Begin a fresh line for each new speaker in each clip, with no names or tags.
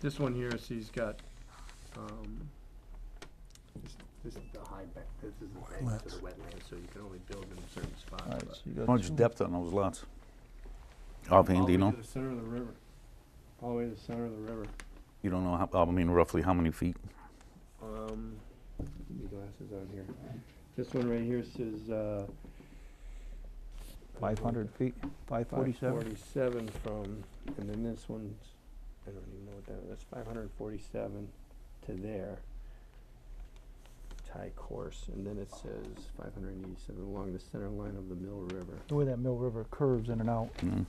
this one here is he's got, um, this, this is the high back, this is the bank to the wetland, so you can only build in certain
All
spots,
right,
but.
so you
How
got
much
two.
depth on those lots? Offhand, do you
All
know?
the way to the center of the river, all the way to the center of the river.
You don't know, how- I mean, roughly how many feet?
Um, give me glasses on here. This one right here says, uh.
500 feet, 547?
Forty-seven from, and then this one's, I don't even know what that, that's five hundred and forty-seven to there. Tie course, and then it says five hundred and eighty-seven along the center line of the Mill River.
The way that Mill River curves in and out.
Mm.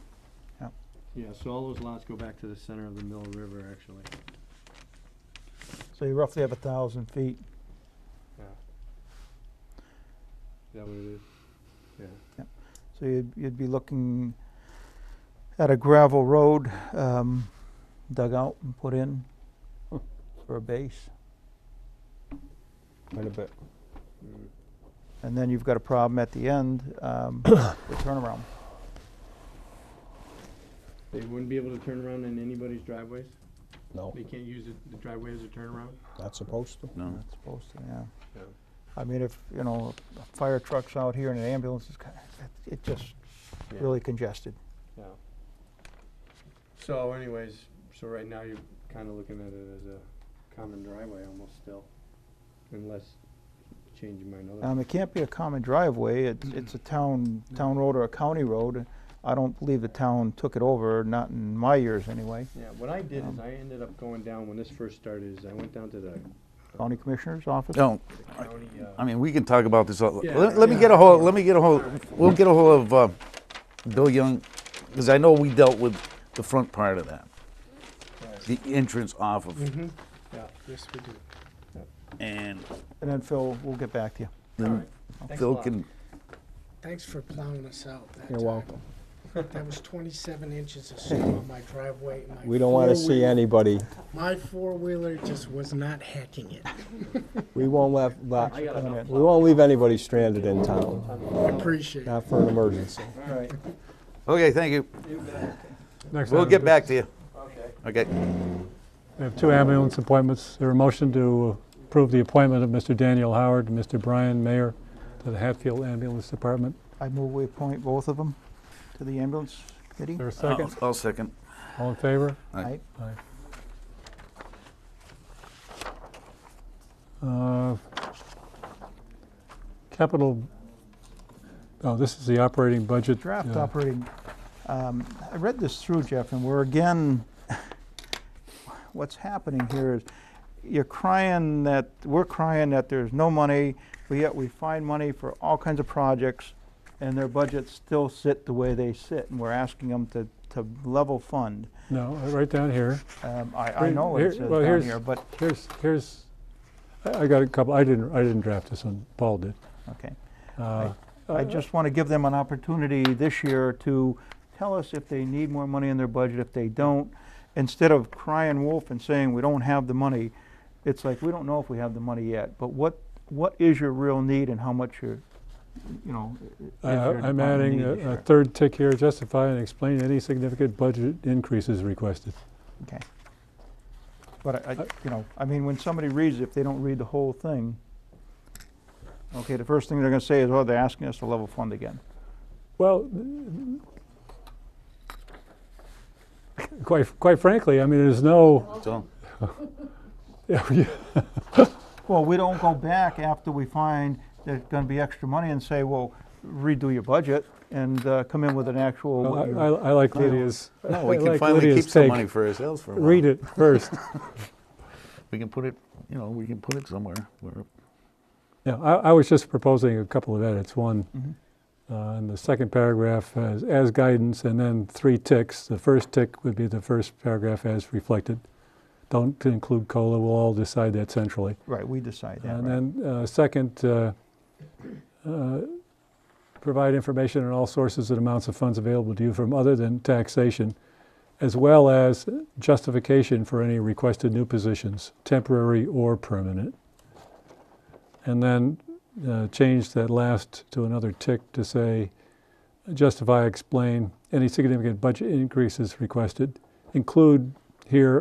Yeah, so all those lots go back to the center of the Mill River, actually.
So you roughly have a 1,000 feet.
Yeah. Is that what it is? Yeah.
So you'd, you'd be looking at a gravel road um, dug out and put in for a base.
Quite a bit.
Mm.
And then you've got a problem at the end, um, the turnaround.
They wouldn't be able to turn around in anybody's driveways?
No,
They can't use it- the driveway as a turnaround?
not supposed to.
No,
That's supposed to, yeah.
Yeah.
I mean, if, you know, a fire truck's out here and an ambulance is, ki- it- it just
Yeah.
really congested.
Yeah. So anyways, so right now you're kinda looking at it as a common driveway almost still, unless you change your mind otherwise.
Um, it can't be a common driveway, it's, it's a town, town road or a county road. I don't believe the town took it over, not in my years anyway.
Yeah, what I did is
um,
I ended up going down, when this first started, is I went down to the
County Commissioner's Office?
No,
the county,
I
uh,
mean, we can talk about this, all-
Yeah,
let, let me
yeah.
get a hold, let me get a hold, we'll get a hold of, uh, Bill Young, because I know we dealt with the front part of that, the entrance off of,
hmm yeah. Yes, we do.
and
And then Phil, we'll get back to you.
then
Alright, thanks a
Phil
lot.
can,
Thanks for plowing us out that
You're
time.
welcome.
That was twenty-seven inches of snow on my driveway. and my
We don't want to see
four-wheel-
anybody.
My four-wheeler just was not hacking it.
We won't let, let-
I got enough.
we won't leave anybody stranded in town,
Appreciate it.
not for an emergency.
All right.
okay, thank you,
Next
we'll
item
get
is-
back to you,
Okay.
okay.
We have two ambulance appointments. Is There a motion to approve the appointment of Mr. Daniel Howard and Mr. Brian Mayer to the Hatfield Ambulance Department.
I move we appoint both of them to the ambulance committee.
Is there a second?
I'll I'll second.
All in favor?
Aye.
Aye. Uh, Capital, oh, this is the operating budget.
Draft
uh,
operating, um, I read this through, Jeff, and we're again, what's happening here is, you're crying that, we're crying that there's no money, but yet we find money for all kinds of projects, and their budgets still sit the way they sit, and we're asking them to, to level fund.
No, right down here.
Um, I, I
Right,
know it
here-
says
well,
down
here's-
here, but,
Here's, here's, I I got a couple, I didn't, I didn't draft this one, Paul did.
okay.
Uh,
I just want to give them an opportunity this year to tell us if they need more money in their budget. If they don't, instead of crying wolf and saying, we don't have the money, it's like, we don't know if we have the money yet, but what, what is your real need and how much you're, you know? i- i- is
Uh,
your
I'm
department
adding
need this
a- a
year?
third tick here, justify and explain any significant budget increases requested.
Okay. But I, I-
Uh,
you know, I mean, when somebody reads, it, if they don't read the whole thing, okay, the first thing they're gonna say is, oh, they're asking us to level fund again.
Well, quite, quite frankly, I mean, there's no,
That's all.
Well, we don't go back after we find there's gonna be extra money and say, well, redo your budget and uh, come in with an actual.
Well,
what
I
you-
I- I like Lydia's, I
No, we can
like
finally
Lydia's
keep some
take.
money for ourselves for a while.
Read it first.
We can put it, you know, we can put it somewhere. where-
Yeah, I, I was just proposing a couple of edits. One,
Mhm.
Mm-hmm.
uh, in the second paragraph, as, as guidance, and then three ticks. The first tick would be the first paragraph as reflected. Don't include COLA, we'll all decide that centrally.
Right, we decide that, right.
And then, uh, second, uh, uh, provide information on all sources and amounts of funds available to you from other than taxation, as well as justification for any requested new positions, temporary or permanent. And then uh, change that last to another tick to say, justify, explain any significant budget increases requested, include here